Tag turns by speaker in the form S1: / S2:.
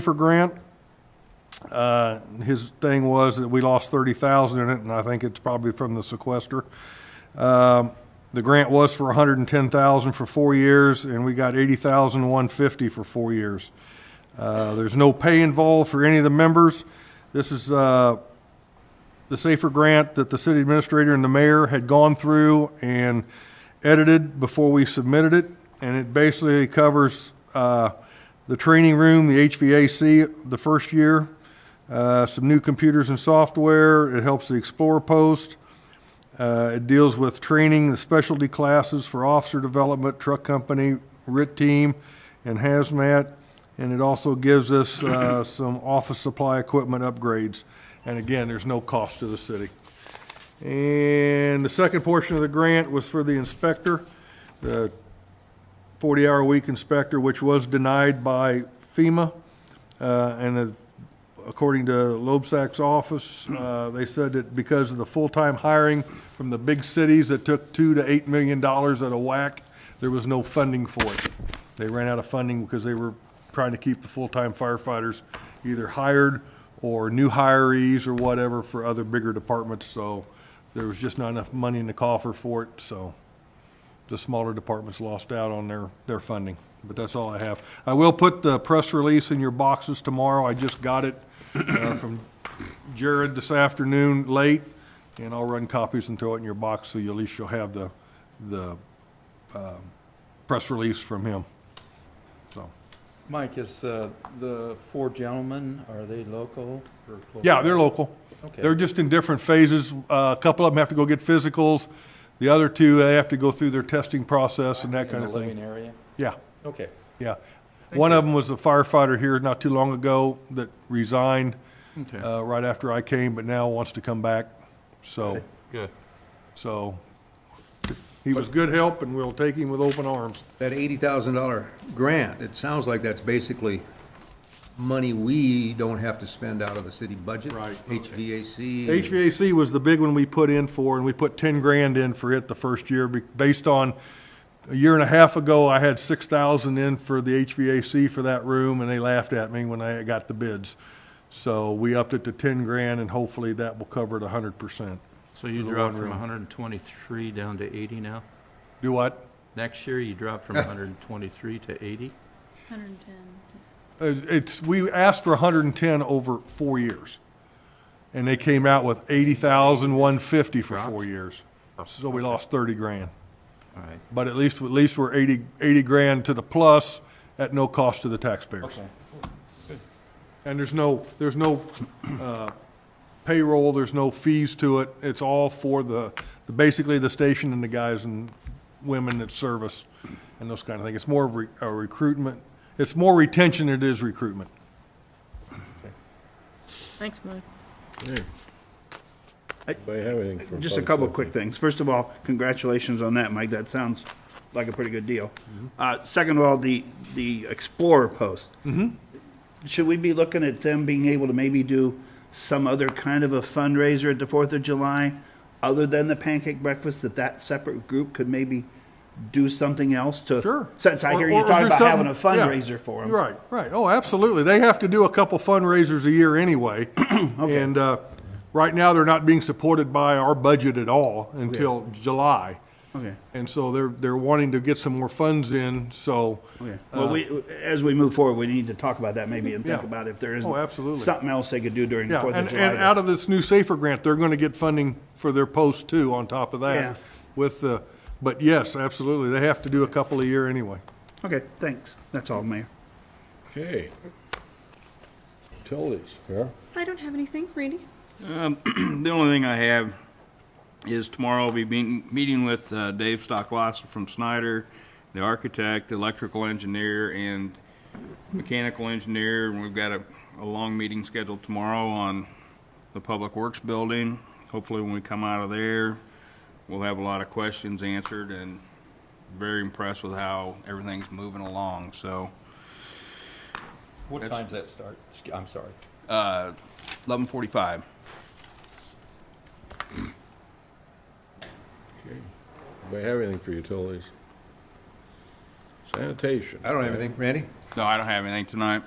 S1: for Grant. Uh, His thing was that we lost thirty thousand in it, and I think it's probably from the sequester. Um, The grant was for $110,000 for four years, and we got eighty thousand one fifty for four years. Uh, There's no pay involved for any of the members. This is uh, the SAFER grant that the city administrator and the mayor had gone through and edited before we submitted it. And it basically covers uh, the training room, the HVAC, the first year, uh, some new computers and software. It helps the Explorer post. Uh, It deals with training, the specialty classes for officer development, truck company, RIT team, and hazmat. And it also gives us uh, some office supply equipment upgrades. And again, there's no cost to the city. And the second portion of the grant was for the inspector, the 40-hour-a-week inspector, which was denied by FEMA. Uh, And as- according to Loebsack's office, uh, they said that because of the full-time hiring from the big cities that took 2 to 8 million dollars at a whack, there was no funding for it. They ran out of funding because they were trying to keep the full-time firefighters either hired or new hirees or whatever for other bigger departments, so there was just not enough money in the coffer for it, so the smaller departments lost out on their, their funding. But that's all I have. I will put the press release in your boxes tomorrow. I just got it uh, from Jared this afternoon, late, and I'll run copies and throw it in your box, so you at least you'll have the, the um, press release from him. So,
S2: Mike, is uh, the four gentlemen, are they local or? close
S1: yeah,
S2: by?
S1: they're local. They're
S2: Okay,
S1: just in different phases. Uh, A couple of them have to go get physicals. The other two, they have to go through their testing process and that
S2: in
S1: kind
S2: the
S1: of thing.
S2: living area?
S1: Yeah.
S2: Okay,
S1: Yeah. One of them was a firefighter here not too long ago that resigned
S3: Okay,
S1: uh, right after I came, but now wants to come back. So,
S3: good.
S1: so he was good help and we'll take him with open arms.
S4: That eighty thousand dollar grant, it sounds like that's basically money we don't have to spend out of the city budget.
S1: Right, okay.
S4: HVAC.
S1: HVAC was the big one we put in for and we put 10 grand in for it the first year be- based on, a year and a half ago, I had 6,000 in for the HVAC for that room and they laughed at me when I got the bids. So we upped it to 10 grand and hopefully that will cover it 100%.
S3: So you
S1: For the
S3: dropped
S1: one
S3: from
S1: room.
S3: hundred and twenty-three down to eighty now?
S1: Do what?
S3: Next year, you drop from hundred and twenty-three to eighty?
S5: 110.
S1: It's- It's, we asked for hundred and ten over four years. And they came out with eighty thousand, one fifty for
S3: Dropped.
S1: four years. So we lost thirty grand.
S3: All right,
S1: But at least, at least we're eighty, eighty grand to the plus at no cost to the taxpayers.
S2: okay.
S1: And there's no, there's no, uh, payroll, there's no fees to it. It's all for the, the- basically the station and the guys and women that service and those kind of things. It's more of re- a recruitment, it's more retention than it is recruitment.
S5: Thanks, Mike.
S6: Just a couple of quick things. First of all, congratulations on that, Mike. That sounds like a pretty good deal.
S1: Mm-hmm.
S6: Uh, second of all, the, the Explorer post.
S1: Mm-hmm.
S6: Should we be looking at them being able to maybe do some other kind of a fundraiser at the Fourth of July? Other than the pancake breakfast, that that separate group could maybe do something else to?
S1: Sure.
S6: Since I
S1: Or-
S6: hear you
S1: or- or do
S6: talking about having a
S1: something- yeah.
S6: fundraiser for them.
S1: Right, right. Oh, absolutely. They have to do a couple fundraisers a year anyway. And uh, right now, they're not being supported by our budget at all until July.
S6: Okay.
S1: And so they're, they're wanting to get some more funds in, so. uh,
S6: Okay. Oh, Well, we, as we move forward, we need to talk about that maybe and think
S1: Yeah.
S6: about if there is
S1: Oh, absolutely.
S6: something else they could do during the
S1: Yeah,
S6: Fourth
S1: and,
S6: of July.
S1: and out of this new SAFER grant, they're going to get funding for their post too on top of
S6: Yeah.
S1: that. With the, but yes, absolutely. They have to do a couple a year anyway.
S6: Okay, thanks. That's all, Mayor.
S7: Okay. Utilities. Yeah.
S5: I don't have anything, Randy.
S8: The only thing I have is tomorrow I'll be being, meeting with uh, Dave Stocklosser from Snyder, the architect, the electrical engineer, and mechanical engineer. And we've got a, a long meeting scheduled tomorrow on the Public Works Building. Hopefully, when we come out of there, we'll have a lot of questions answered and very impressed with how everything's moving along. So,
S2: What
S8: That's-
S2: time's that start? Sc- I'm sorry.
S8: uh, 11:45.
S7: Anybody have anything for utilities? Sanitation.
S4: I don't have anything, Randy?
S8: No, I don't have anything tonight.